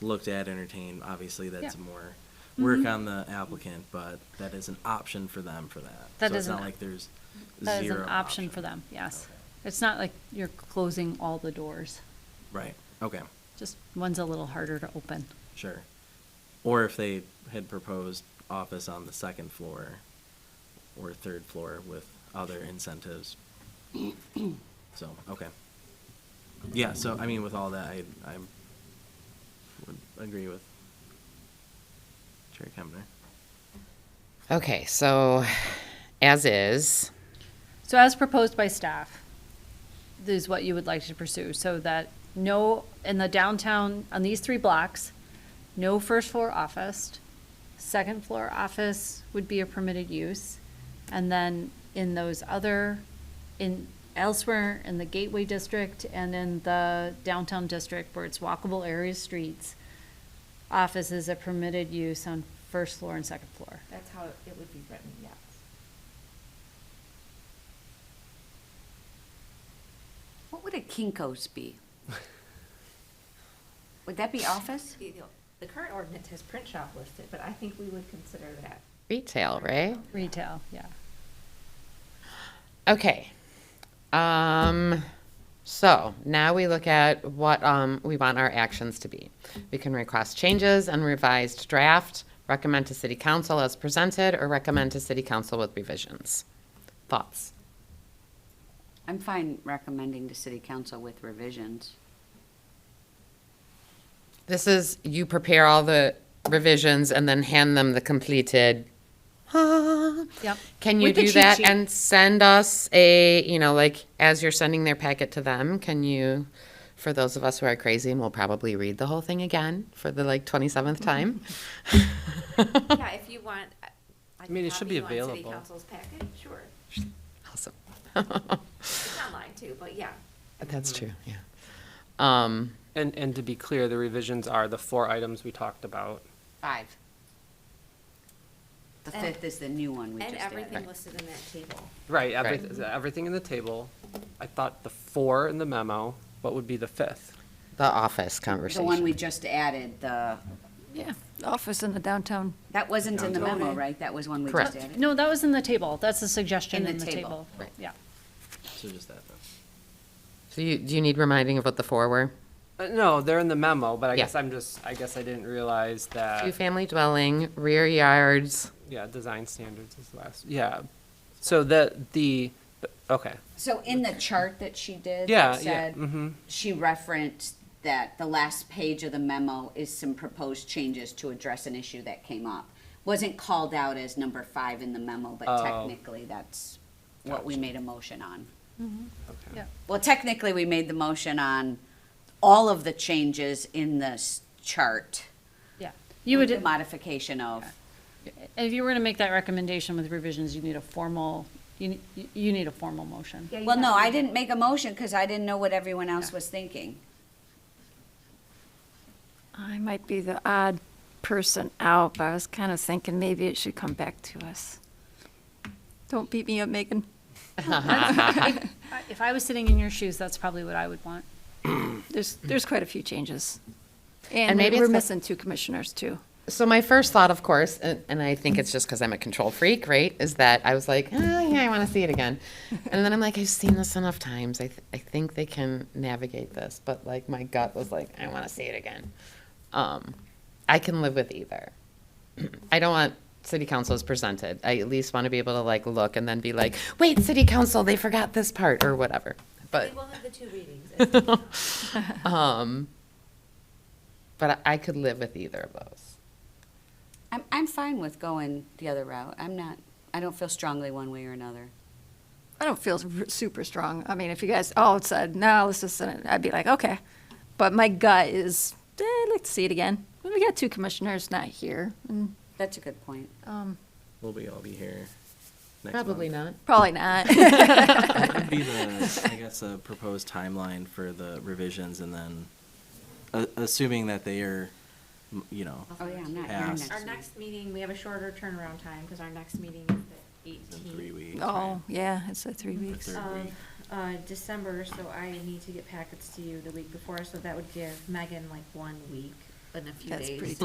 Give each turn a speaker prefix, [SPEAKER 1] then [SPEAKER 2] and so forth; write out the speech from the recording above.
[SPEAKER 1] looked at, entertained. Obviously, that's
[SPEAKER 2] Yeah. Mm-hmm.
[SPEAKER 1] more work on the applicant, but that is an option for them for that.
[SPEAKER 2] That
[SPEAKER 1] So
[SPEAKER 2] is
[SPEAKER 1] it's not
[SPEAKER 2] an-
[SPEAKER 1] like there's
[SPEAKER 2] That is an
[SPEAKER 1] zero
[SPEAKER 2] option for them, yes.
[SPEAKER 1] Okay.
[SPEAKER 2] It's not like you're closing all the doors,
[SPEAKER 1] Right, okay,
[SPEAKER 2] just one's a little harder to open.
[SPEAKER 1] sure. Or if they had proposed office on the second floor or third floor with other incentives. So, okay. Yeah, so I mean, with all that, I, I would agree with Chair Kemner.
[SPEAKER 3] Okay, so as is,
[SPEAKER 2] So as proposed by staff, is what you would like to pursue, so that no, in the downtown, on these three blocks, no first floor office, second floor office would be a permitted use, and then in those other, in elsewhere, in the gateway district and in the downtown district where it's walkable areas, streets, office is a permitted use on first floor and second floor.
[SPEAKER 4] That's how it would be written, yes.
[SPEAKER 5] What would a Kinko's be? Would that be office?
[SPEAKER 4] The current ordinance has print shop listed, but I think we would consider that.
[SPEAKER 3] retail, right?
[SPEAKER 2] Retail, yeah.
[SPEAKER 3] Okay. Um, so now we look at what, um, we want our actions to be. We can request changes and revised draft, recommend to city council as presented, or recommend to city council with revisions. Thoughts?
[SPEAKER 5] I'm fine recommending to city council with revisions.
[SPEAKER 3] This is, you prepare all the revisions and then hand them the completed. ah,
[SPEAKER 2] Yep.
[SPEAKER 3] Can you
[SPEAKER 2] With the
[SPEAKER 3] do
[SPEAKER 2] cheat
[SPEAKER 3] that
[SPEAKER 2] sheet.
[SPEAKER 3] and send us a, you know, like as you're sending their packet to them, can you, for those of us who are crazy and will probably read the whole thing again for the like 27th
[SPEAKER 5] Mm-hmm.
[SPEAKER 3] time?
[SPEAKER 4] Yeah, if you want. uh, I
[SPEAKER 6] mean, it should be
[SPEAKER 4] City
[SPEAKER 6] available.
[SPEAKER 4] council's packet, sure.
[SPEAKER 3] Awesome.
[SPEAKER 4] It's online too, but yeah.
[SPEAKER 3] That's true, yeah. Um,
[SPEAKER 6] And, and to be clear, the revisions are the four items we talked about.
[SPEAKER 5] Five. The
[SPEAKER 4] And-
[SPEAKER 5] fifth is the new one we just
[SPEAKER 4] And everything
[SPEAKER 5] added.
[SPEAKER 4] listed in that table.
[SPEAKER 6] Right,
[SPEAKER 3] Right.
[SPEAKER 6] everything, everything in the table. I thought the four in the memo, what would be the fifth?
[SPEAKER 3] the office
[SPEAKER 5] The
[SPEAKER 3] conversation.
[SPEAKER 5] one we just added, the,
[SPEAKER 2] Yeah, office in the downtown.
[SPEAKER 5] that wasn't in the memo, right? That was one we just
[SPEAKER 3] Correct.
[SPEAKER 5] added?
[SPEAKER 2] Uh, No, that was in the table. That's a suggestion in the table.
[SPEAKER 5] Right.
[SPEAKER 2] Yeah.
[SPEAKER 1] So just that then.
[SPEAKER 3] So you, do you need reminding of what the four were?
[SPEAKER 6] Uh, No, they're in the memo, but I
[SPEAKER 3] Yeah.
[SPEAKER 6] guess I'm just, I guess I didn't realize that,
[SPEAKER 3] Two-family dwelling, rear yards.
[SPEAKER 6] yeah, design standards is the last, yeah. So the, the, okay,
[SPEAKER 5] So in the chart that she did,
[SPEAKER 6] Yeah,
[SPEAKER 5] that
[SPEAKER 6] Mm-hmm. yeah,
[SPEAKER 5] said, she referenced that the last page of the memo is some proposed changes to address an issue that came up. Wasn't called out as number five in the memo, but
[SPEAKER 6] Oh.
[SPEAKER 5] technically that's what we made a motion on.
[SPEAKER 6] okay.
[SPEAKER 2] Yeah.
[SPEAKER 5] Well, technically, we made the motion on all of the changes in this chart.
[SPEAKER 2] Yeah. You
[SPEAKER 5] with the
[SPEAKER 2] would,
[SPEAKER 5] Modification of,
[SPEAKER 2] if you were to make that recommendation with revisions, you need a formal, you, ne- you need a formal motion.
[SPEAKER 4] Yeah, you
[SPEAKER 5] well, no,
[SPEAKER 4] have-
[SPEAKER 5] I didn't make a motion because I didn't know what everyone else was thinking.
[SPEAKER 7] I might be the odd person out, but I was kind of thinking maybe it should come back to us. Don't beat me up, Megan.
[SPEAKER 2] I- If I was sitting in your shoes, that's probably what I would want.
[SPEAKER 7] There's, there's quite a few changes.
[SPEAKER 3] And
[SPEAKER 7] And
[SPEAKER 3] maybe
[SPEAKER 7] we're
[SPEAKER 3] it's the-
[SPEAKER 7] missing two commissioners, too.
[SPEAKER 3] So my first thought, of course, and, and I think it's just because I'm a control freak, right? Is that I was like, oh, yeah, I want to see it again, and then I'm like, I've seen this enough times. I, th- I think they can navigate this, but like my gut was like, I want to see it again. Um, I can live with either. I don't want city council as presented. I at least want to be able to like look and then be like, wait, city council, they forgot this part or whatever. But
[SPEAKER 4] We will have the two readings.
[SPEAKER 3] um, but I I could live with either of those.
[SPEAKER 5] I'm, I'm fine with going the other route. I'm not, I don't feel strongly one way or another.
[SPEAKER 7] I don't feel r- super strong. I mean, if you guys all said, no, let's just send it, I'd be like, okay. But my gut is, eh, I'd like to see it again. We got two commissioners not here, and um,
[SPEAKER 5] That's a good point.
[SPEAKER 1] We'll be all be here next
[SPEAKER 3] Probably
[SPEAKER 1] month.
[SPEAKER 3] not.
[SPEAKER 7] probably not.
[SPEAKER 1] What would be the, I guess, a proposed timeline for the revisions and then, a- assuming that they are, m- you know,
[SPEAKER 5] Oh, yeah, I'm not here
[SPEAKER 1] Passed.
[SPEAKER 5] next
[SPEAKER 4] Our
[SPEAKER 5] week.
[SPEAKER 4] next meeting, we have a shorter turnaround time because our next meeting is the
[SPEAKER 1] in
[SPEAKER 4] eighteenth.
[SPEAKER 1] three weeks. right?
[SPEAKER 7] Oh, yeah, Um, it's a three
[SPEAKER 1] The
[SPEAKER 7] weeks.
[SPEAKER 1] third
[SPEAKER 4] of
[SPEAKER 1] week.
[SPEAKER 4] uh, December, so I need to get packets to you the week before, so that would give Megan like one week
[SPEAKER 8] in a few
[SPEAKER 4] That's
[SPEAKER 8] days.
[SPEAKER 4] pretty